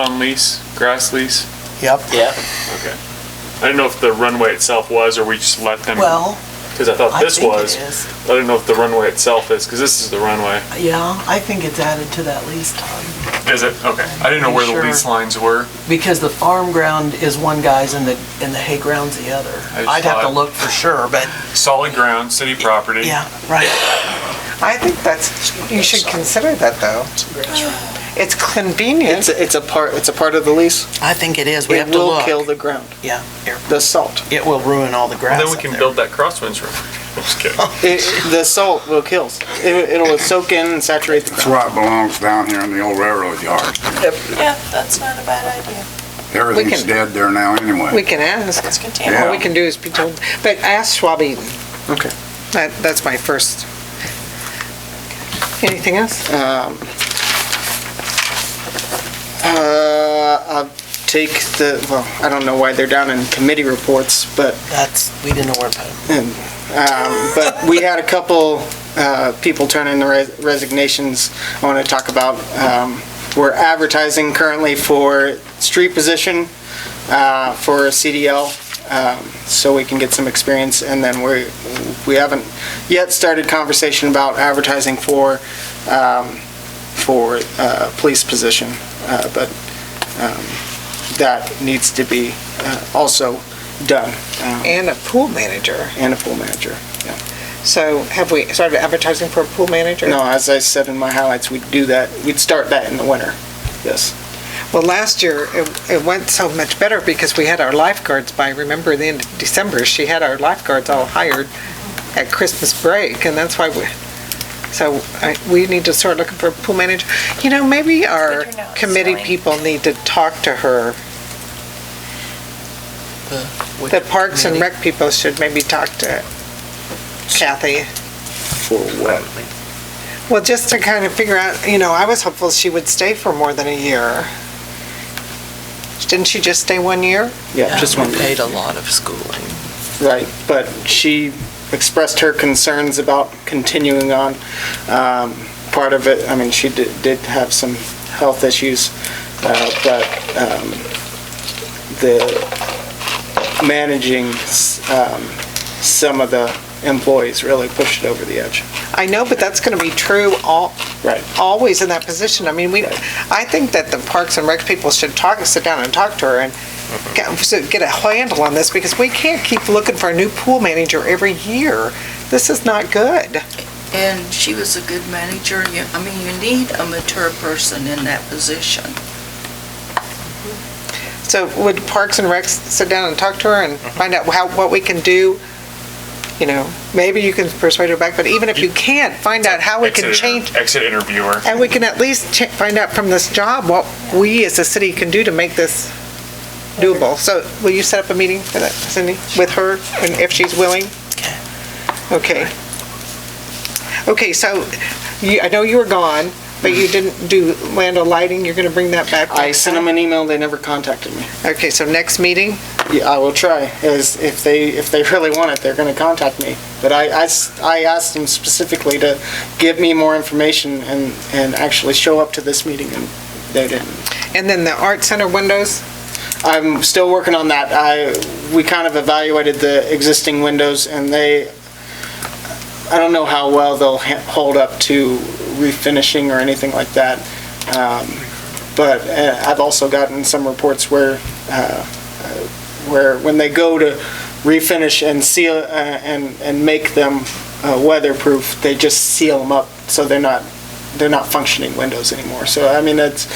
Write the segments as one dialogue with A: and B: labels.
A: on lease, grass lease?
B: Yep.
C: Yeah,
A: Okay. I didn't know if the runway itself was, or we just let them,
B: Well,
A: because I thought
B: I
A: this
B: think
A: was.
B: it is.
A: I didn't know if the runway itself is, because this is the runway.
B: Yeah, I think it's added to that lease time.
A: Is it? Okay. I didn't know where the
B: Sure.
A: lease lines were.
B: Because the farm ground is one guy's and the, and the hay ground's the other.
A: I just
B: I'd have to
A: thought-
B: look for sure, but
A: Solid ground, city property.
B: yeah, right.
D: I think that's, you should consider that, though. It's
E: It's,
D: convenient.
E: it's a part, it's a part of the lease.
B: I think it is. We have
E: It
B: to
E: will
B: look.
E: kill the ground,
B: Yeah, here.
E: the salt.
B: it will ruin all the grass
A: Well, then we
B: up
A: can
B: there.
A: build that crosswinds room. I'm just kidding.
E: It, the salt will kill. It, it'll soak in and saturate the
F: That's
E: ground.
F: why it belongs down here in the old railroad yard.
G: Yeah, that's not a bad idea.
F: Everything's dead there now
D: We
F: anyway.
D: can ask.
G: It's contained.
D: All we can do is be told, but ask Schwab Eden.
E: Okay.
D: That, that's my first. Anything else?
E: Um, uh, I'll take the, well, I don't know why they're down in committee reports, but
B: That's, we didn't know where to put it.
E: And, um, but we had a couple, uh, people turn in their res- resignations I want to talk about. Um, we're advertising currently for street position, uh, for CDL, um, so we can get some experience. And then we, we haven't yet started conversation about advertising for, um, for, uh, police position. Uh, but, um, that needs to be, uh, also done. Um,
D: And a pool manager.
E: and a pool manager.
D: So have we started advertising for a pool manager?
E: No, as I said in my highlights, we'd do that, we'd start that in the winter. Yes.
D: Well, last year, it, it went so much better because we had our lifeguards by, remember, the end of December, she had our lifeguards all hired at Christmas break, and that's why we, so I, we need to start looking for a pool manager. You know, maybe our
G: Good to know, it's
D: committee
G: fine.
D: people need to talk to her. The Parks and Rec people should maybe talk to Kathy.
E: For what?
D: Well, just to kind of figure out, you know, I was hopeful she would stay for more than a year. Didn't she just stay one year?
E: Yeah, just one,
B: Paid a lot of schooling.
E: right, but she expressed her concerns about continuing on. Um, Part of it, I mean, she did, did have some health issues, uh, but um, the managing s- um, some of the employees really pushed it over the edge.
D: I know, but that's going to be true all,
E: Right.
D: always in that position. I mean, we, I think that the Parks and Rec people should talk, sit down and talk to her and get, so get a handle on this because we can't keep looking for a new pool manager every year. This is not good.
H: And she was a good manager. You- I mean, you need a mature person in that position.
D: So would Parks and Rec sit down and talk to her and find out how, what we can do? You know, maybe you can persuade her back, but even if you can't, find out how we can
A: Exit inter-
D: change,
A: Exit interviewer.
D: and we can at least che- find out from this job what we as a city can do to make this doable. So will you set up a meeting for that, Cindy, with her, and if she's willing? Okay. Okay, so you, I know you were gone, but you didn't do land lighting, you're gonna bring that back?
E: I
D: next
E: sent
D: time?
E: them an email, they never contacted me.
D: Okay, so next meeting?
E: Yeah, I will try, as if they, if they really want it, they're gonna contact me. But I, I s- I asked them specifically to give me more information and, and actually show up to this meeting, and they didn't.
D: And then the art center windows,
E: I'm still working on that, I, we kind of evaluated the existing windows, and they, I don't know how well they'll ha- hold up to refinishing or anything like that. Um, But uh, I've also gotten some reports where, uh, where when they go to refinish and seal, uh, and, and make them uh, weatherproof, they just seal them up, so they're not, they're not functioning windows anymore. So, I mean, it's,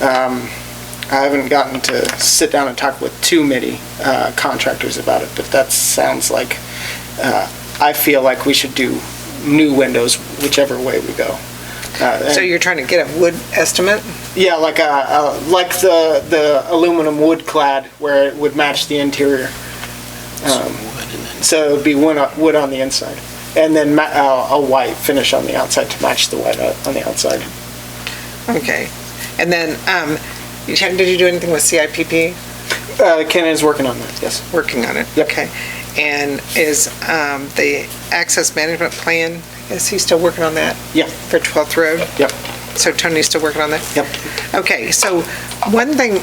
E: um, I haven't gotten to sit down and talk with too many uh, contractors about it, but that sounds like, uh, I feel like we should do new windows whichever way we go. Uh,
D: so
E: and-
D: you're trying to get a wood estimate?
E: yeah, like a, uh like the the aluminum wood clad where it would match the interior. Um, so it'd be wood on, wood on the inside, and then ma- uh, a white finish on the outside to match the white o- on the outside. Uh-huh.
D: Okay. And then, um, you had- did you do anything with CIPP?
E: Uh, Ken is working on that. Yes.
D: Working on it?
E: Yep.
D: Okay. And is, um, the access management plan, is he still working on that?
E: Yeah.
D: For 12th Road?
E: Yep.
D: So Tony's still working on that?
E: Yep.
D: Okay, so one thing